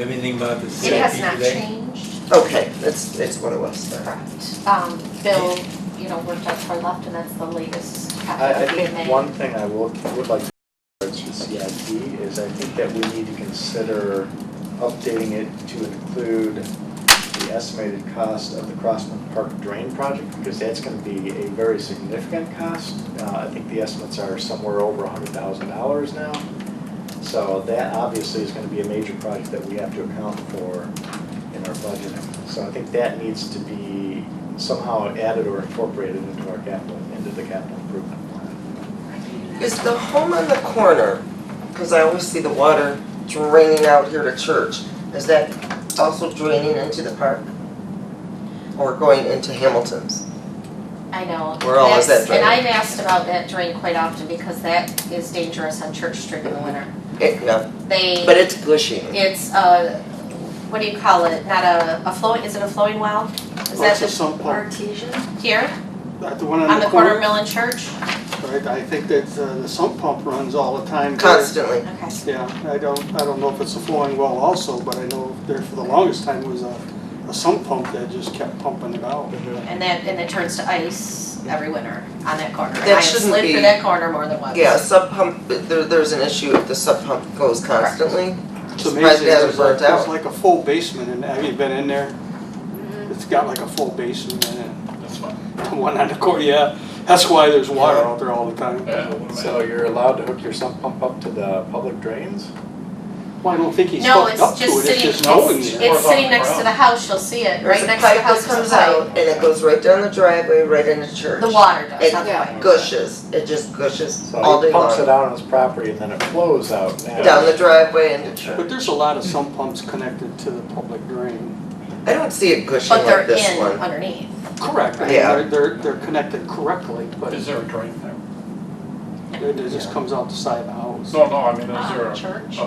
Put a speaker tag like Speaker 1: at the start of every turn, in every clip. Speaker 1: Everything about the
Speaker 2: It has
Speaker 1: safety
Speaker 2: not
Speaker 1: today?
Speaker 2: changed,
Speaker 3: Okay, that's, that's what it was then.
Speaker 2: correct. Um, Bill, you know, worked out for left and that's the latest copy
Speaker 4: I, I
Speaker 2: that we
Speaker 4: think
Speaker 2: made.
Speaker 4: one thing I will, would like to reference to CIP is I think that we need to consider updating it to include the estimated cost of the Crossman Park Drain project, because that's gonna be a very significant cost. Uh, I think the estimates are somewhere over hundred thousand dollars now. So that obviously is gonna be a major project that we have to account for in our budgeting. So I think that needs to be somehow added or incorporated into our capital, into the capital improvement plan.
Speaker 3: Is the home on the corner, because I always see the water draining out here to church, is that also draining into the park? Or going into Hamilton's?
Speaker 2: I know.
Speaker 3: Where all is that
Speaker 2: That's-
Speaker 3: drain?
Speaker 2: And I'm asked about that drain quite often because that is dangerous on Church Street in the winter.
Speaker 3: It, no,
Speaker 2: They.
Speaker 3: but it's gushing.
Speaker 2: It's a, what do you call it, not a, a flowing, is it a flowing well? Is
Speaker 3: Oh,
Speaker 2: that
Speaker 5: Well, Oh, it's a
Speaker 2: the,
Speaker 5: sump pump,
Speaker 6: Artesian?
Speaker 2: here,
Speaker 5: Uh, the one
Speaker 2: on the corner of Mill and Church?
Speaker 5: Right, I think that uh, the sump pump runs all the time. there.
Speaker 3: Constantly.
Speaker 2: Okay.
Speaker 5: Yeah, I don't, I don't know if it's a flowing well also, but I know there for the longest time was a, a sump pump that just kept pumping it out.
Speaker 2: And that, and it turns to ice every winter on that corner. And
Speaker 3: That
Speaker 2: I have
Speaker 3: shouldn't
Speaker 2: slid
Speaker 3: be-
Speaker 2: through that corner more than once.
Speaker 3: Yeah, a sub pump, there, there's an issue if the sub pump goes constantly.
Speaker 5: It's
Speaker 3: Surprised it
Speaker 5: amazing,
Speaker 3: hasn't
Speaker 5: there's like,
Speaker 3: burnt out.
Speaker 5: there's like a full basement in, have you been in there?
Speaker 2: Mm-hmm.
Speaker 5: It's got like a full basement in it. That's why. The one on the corner, yeah, that's why there's water out there all the time.
Speaker 7: Uh,
Speaker 4: So you're allowed to hook your sump pump up to the public drains?
Speaker 5: Well, I don't think he's
Speaker 2: No,
Speaker 5: hooked
Speaker 2: it's
Speaker 5: up to
Speaker 2: just
Speaker 5: it, it's
Speaker 2: sitting,
Speaker 5: just knowing
Speaker 2: it's,
Speaker 5: there.
Speaker 1: Or
Speaker 2: it's
Speaker 1: above the
Speaker 2: sitting next to
Speaker 1: ground.
Speaker 2: the house, you'll see it,
Speaker 3: There's
Speaker 2: right
Speaker 3: a
Speaker 2: next to the
Speaker 3: pipe that
Speaker 2: house is
Speaker 3: comes
Speaker 2: a
Speaker 3: out
Speaker 2: pipe.
Speaker 3: and it goes right down the driveway, right into church.
Speaker 2: The water does,
Speaker 3: It-
Speaker 2: not the
Speaker 6: Yeah.
Speaker 2: pipe.
Speaker 3: Gushes, it just gushes all
Speaker 4: So he
Speaker 3: day
Speaker 4: pumps
Speaker 3: long.
Speaker 4: it out on his property and then it flows out now.
Speaker 3: Down the driveway into church.
Speaker 5: But there's a lot of sump pumps connected to the public drain.
Speaker 3: I don't see it gushing
Speaker 2: But they're
Speaker 3: like this
Speaker 2: in
Speaker 3: one.
Speaker 2: underneath.
Speaker 5: Correct, I mean,
Speaker 3: Yeah.
Speaker 5: they're, they're, they're connected correctly, but
Speaker 7: Is
Speaker 5: it
Speaker 7: there a drain there?
Speaker 5: it just comes out the side of the house.
Speaker 7: No, no, I mean, is
Speaker 2: Ah,
Speaker 7: there a
Speaker 2: Church.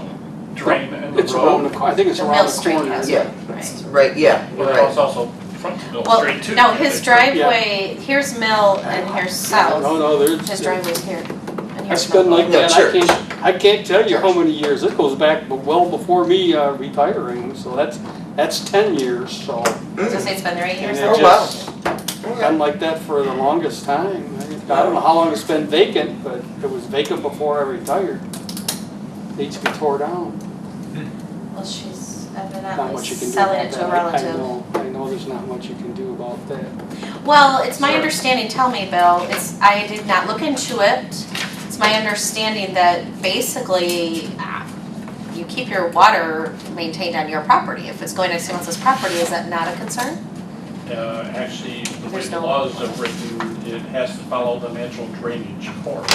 Speaker 7: drain in the
Speaker 5: It's around the,
Speaker 7: road?
Speaker 5: cor- I think it's
Speaker 2: The
Speaker 5: around
Speaker 2: Mill
Speaker 5: the
Speaker 2: Street
Speaker 5: corner.
Speaker 2: has
Speaker 3: Yeah.
Speaker 2: one, right?
Speaker 3: Right, yeah, you're
Speaker 7: Well, it's
Speaker 3: right.
Speaker 7: also front to Mill
Speaker 2: Well,
Speaker 7: Street too.
Speaker 2: no, his driveway,
Speaker 5: driveway-
Speaker 2: here's Mill and here's
Speaker 5: No,
Speaker 2: South,
Speaker 5: no, there's.
Speaker 2: his driveway's here. and
Speaker 5: I
Speaker 2: here's
Speaker 5: spend
Speaker 2: Mill.
Speaker 5: like
Speaker 3: No,
Speaker 5: that, I
Speaker 3: church.
Speaker 5: can't, I can't tell you how many years, it goes back b- well before me uh, retiring, so that's, that's ten years, so.
Speaker 3: Mm.
Speaker 2: So say it's been there eight years.
Speaker 5: And
Speaker 3: Oh,
Speaker 5: it
Speaker 2: now?
Speaker 3: wow.
Speaker 5: just,
Speaker 3: Okay.
Speaker 5: been like that for the longest time, I don't know how long it's been vacant, but it was vacant before I retired. Needs to be tore down.
Speaker 2: Well, she's
Speaker 5: not
Speaker 2: evidently
Speaker 5: much you can do
Speaker 2: selling
Speaker 5: about
Speaker 2: it to
Speaker 5: that.
Speaker 2: a
Speaker 5: I- I
Speaker 2: relative.
Speaker 5: know, I know there's not much you can do about that.
Speaker 2: Well, it's my
Speaker 7: Sorry.
Speaker 2: understanding, tell me, Bill, it's, I did not look into it. It's my understanding that basically, ah, you keep your water maintained on your property. If it's going to someone else's property, is that not a concern?
Speaker 7: Uh, actually, the way
Speaker 2: There's
Speaker 7: the
Speaker 2: no-
Speaker 7: laws are written, it has to follow the natural drainage course.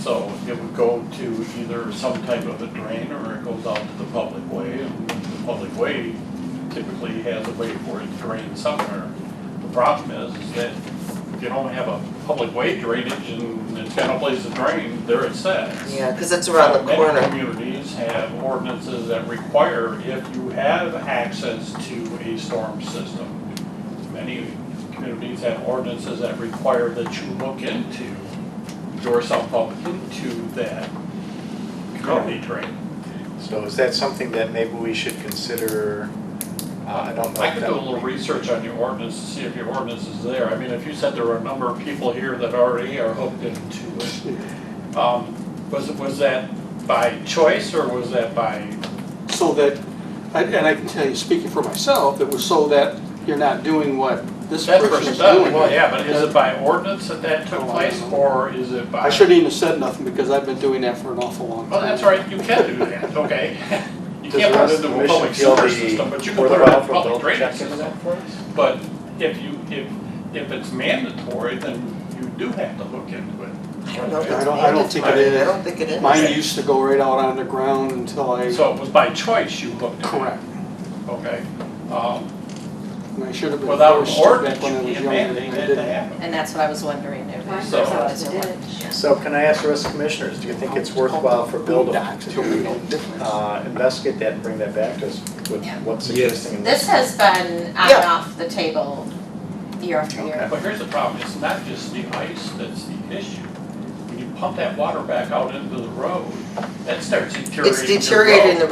Speaker 7: So it would go to either some type of a drain or it goes out to the public way. And the public way typically has a way for it to drain somewhere. The problem is, is that if you don't have a public way drainage and it's got no place to drain, there it sits.
Speaker 3: Yeah, because it's around the
Speaker 7: Many
Speaker 3: corner.
Speaker 7: communities have ordinances that require if you have access to a storm system. Many communities have ordinances that require that you look into your sump pump into that
Speaker 4: Oh.
Speaker 7: community drain.
Speaker 4: So is that something that maybe we should consider? Uh, I don't know.
Speaker 7: I
Speaker 4: if
Speaker 7: could
Speaker 4: that
Speaker 7: do a
Speaker 4: would
Speaker 7: little
Speaker 4: be-
Speaker 7: research on your ordinance to see if your ordinance is there. I mean, if you said there were a number of people here that already are hooked into it, um, was, was that by choice or was that by
Speaker 5: So that, I- and I can tell you, speaking for myself, it was so that you're not doing what this
Speaker 7: That
Speaker 5: person's
Speaker 7: person
Speaker 5: doing.
Speaker 7: does, well, yeah, but is it by ordinance that that took
Speaker 5: Oh, I
Speaker 7: place,
Speaker 5: don't know.
Speaker 7: or is it by?
Speaker 5: I shouldn't even have said nothing because I've been doing that for an awful long time.
Speaker 7: Well, that's all right, you can do that, okay. You
Speaker 4: Does
Speaker 7: can't
Speaker 4: the
Speaker 7: put
Speaker 4: rest
Speaker 7: it
Speaker 4: of
Speaker 7: into
Speaker 4: the
Speaker 7: a
Speaker 4: commission
Speaker 7: public
Speaker 4: feel
Speaker 7: sewer
Speaker 4: the-
Speaker 7: system, but you can
Speaker 4: worthwhile
Speaker 7: put it in a
Speaker 4: for
Speaker 7: public
Speaker 4: Bill to
Speaker 7: drainage
Speaker 4: check into
Speaker 7: system.
Speaker 4: that for us?
Speaker 7: But if you, if, if it's mandatory, then you do have to look into
Speaker 3: I don't know if
Speaker 5: I
Speaker 3: it's
Speaker 7: it.
Speaker 5: don't, I don't think it
Speaker 3: I
Speaker 5: is.
Speaker 3: don't think it is.
Speaker 5: Mine used to go right out on the ground until I,
Speaker 7: So it was by choice you looked at it,
Speaker 5: correct.
Speaker 7: okay? Um,
Speaker 5: And I should have been
Speaker 7: Without
Speaker 5: forced
Speaker 7: an
Speaker 5: to
Speaker 7: ordinance,
Speaker 5: back when I
Speaker 7: you
Speaker 5: was
Speaker 7: can't
Speaker 5: younger and
Speaker 7: mandate
Speaker 5: I
Speaker 7: that to
Speaker 5: didn't.
Speaker 7: happen.
Speaker 2: And that's what I was wondering if
Speaker 6: Mine
Speaker 2: there's.
Speaker 6: goes
Speaker 7: So-
Speaker 6: out to ditch.
Speaker 4: So can I ask the rest of the commissioners, do you think it's worthwhile for Bill to uh, investigate that and bring that back to us with
Speaker 2: Yeah.
Speaker 4: what's
Speaker 1: Yes.
Speaker 4: existing in
Speaker 2: This
Speaker 4: this?
Speaker 2: has been on and
Speaker 3: Yeah.
Speaker 2: off the table year after year.
Speaker 7: But here's the problem, it's not just the ice that's the issue. When you pump that water back out into the road, that starts deteriorating
Speaker 3: It's
Speaker 7: the road.
Speaker 3: deteriorating the